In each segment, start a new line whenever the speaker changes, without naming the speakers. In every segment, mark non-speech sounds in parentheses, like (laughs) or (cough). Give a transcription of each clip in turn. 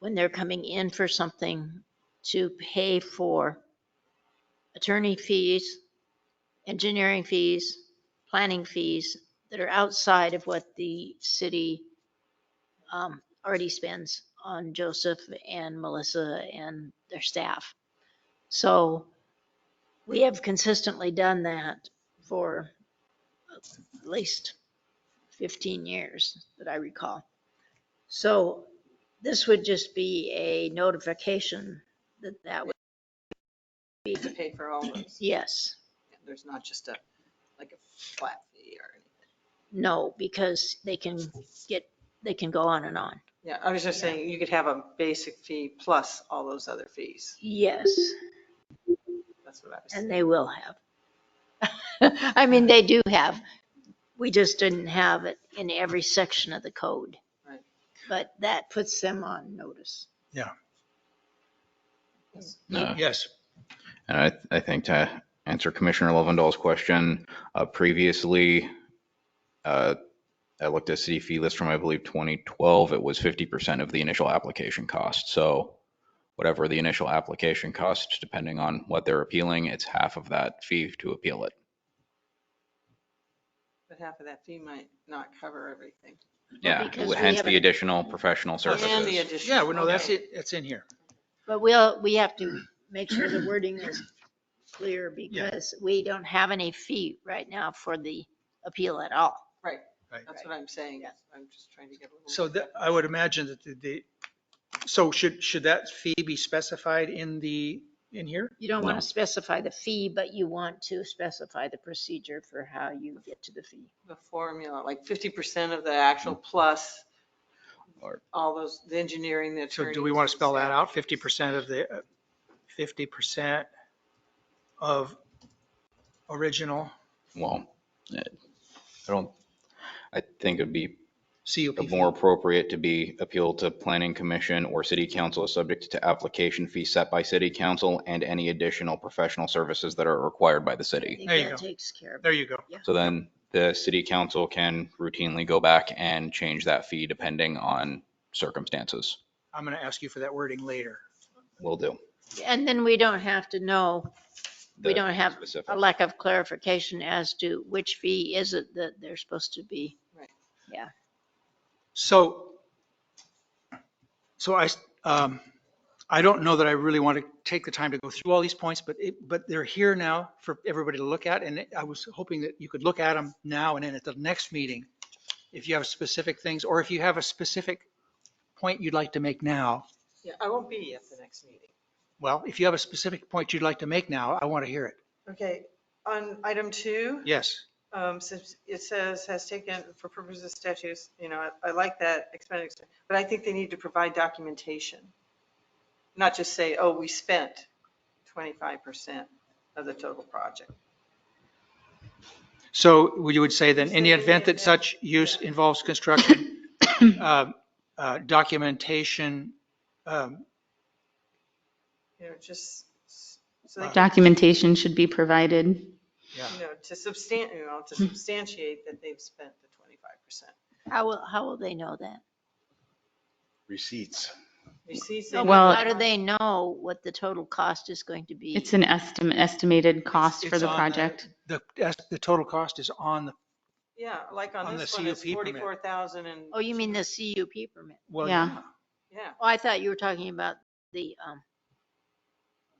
when they're coming in for something to pay for attorney fees, engineering fees, planning fees that are outside of what the city um, already spends on Joseph and Melissa and their staff. So we have consistently done that for at least 15 years that I recall. So this would just be a notification that that would be,
to pay for all those.
yes.
There's not just a, like a flat fee or anything.
No, because they can get, they can go on and on.
Yeah, I was just saying, you could have a basic fee plus all those other fees.
Yes,
That's what I was saying.
and they will have. (laughs) I mean, they do have. We just didn't have it in every section of the code.
Right.
But that puts them on notice.
Yeah.
Yes.
And I, I think to answer Commissioner Lovendall's question, uh, previously, uh, I looked at city fee list from, I believe, 2012, it was 50% of the initial application cost. So whatever the initial application cost, depending on what they're appealing, it's half of that fee to appeal it.
But half of that fee might not cover everything.
Yeah,
because we
hence the
haven't-
additional professional
And the
services.
additional.
Yeah, well, no, that's
Okay.
it. That's in here.
But we'll, we have to make sure the wording is clear because we don't have any fee right now for the appeal at all.
Right.
Right.
That's what I'm saying. I'm just trying to get a little.
So that, I would imagine that the- the, so should, should that fee be specified in the, in here?
You don't want
No.
to specify the fee, but you want to specify the procedure for how you get to the fee.
The formula, like 50% of the actual plus
Or-
all those, the engineering, the
So
attorneys.
do we want to
the
spell that
staff.
out? Fifty percent of the, fifty percent of original
Well, I I don't, I think it'd be
CUP. fee.
more appropriate to be appealed to planning commission or city council is subject to application fee set by city council and any additional professional services that are required by the
I
city.
think
There you
that
go.
takes care of it.
There you go.
So then the city council can routinely go back and change that fee depending on circumstances.
I'm going to ask you for that wording later.
Will do.
And then we don't have to know, we
The
don't have
specific-
a lack of clarification as to which fee is it that they're supposed to be.
So, so I, um, I don't know that I really want to take the time to go through all these points, but it, but they're here now for everybody to look at. And I was hoping that you could look at them now and then at the next meeting, if you have specific things, or if you have a specific point you'd like to make now.
Yeah, I won't be at the next meeting.
Well, if you have a specific point you'd like to make now, I want to hear it.
Okay, on item two.
Yes.
Um, since it says has taken for purposes of statutes, you know, I I like that expended, but I think they need to provide documentation. Not just say, oh, we spent twenty-five percent of the total project.
So you would say then, in the event that such use involves construction, (coughs) uh, uh, documentation, um,
You know, just, s- so they, can,
Documentation should be provided.
you know, to substan, you know, to substantiate that they've spent the twenty-five percent.
How will, how will they know that?
receipts.
Receipts.
No,
and-
but
Well-
How do they know what the total cost is going to be?
It's an estimate, estimated cost for
It's
the
on the-
project.
the, that's- the total cost is on the,
Yeah, like on
On the
this one, it's
CUP permit.
forty-four thousand and.
Oh, you mean the CUP permit?
well,
Yeah.
Yeah,
Oh, I thought you were talking about the, um,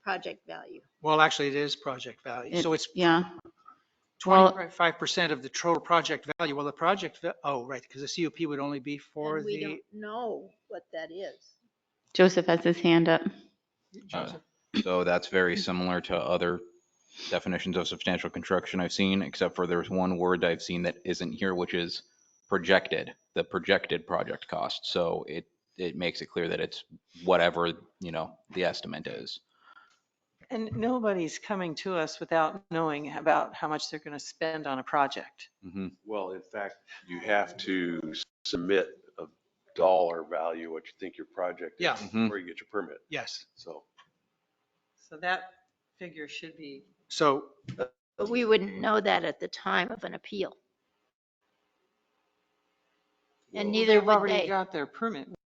project value.
well, actually it is project value. So it's
Yeah, well-
25% of the total project value. Well, the project, va- oh, right, because the CUP would only be for
And we
the,
don't know what that is.
Joseph has his hand up.
Uh, So that's very similar to other definitions of substantial construction I've seen, except for there's one word I've seen that isn't here, which is projected, the projected project cost. So it, it makes it clear that it's whatever, you know, the estimate is.
And nobody's coming to us without knowing about how much they're going to spend on a project.
Mhm.
Well, in fact, you have to submit a dollar value, what you think your project
Yeah.
is,
Mhm.
before you get your permit.
yes.
So
So that figure should be,
So,
But we wouldn't know that at the time of an appeal. And
Well,
neither
they've
would
already
they.
got their permit.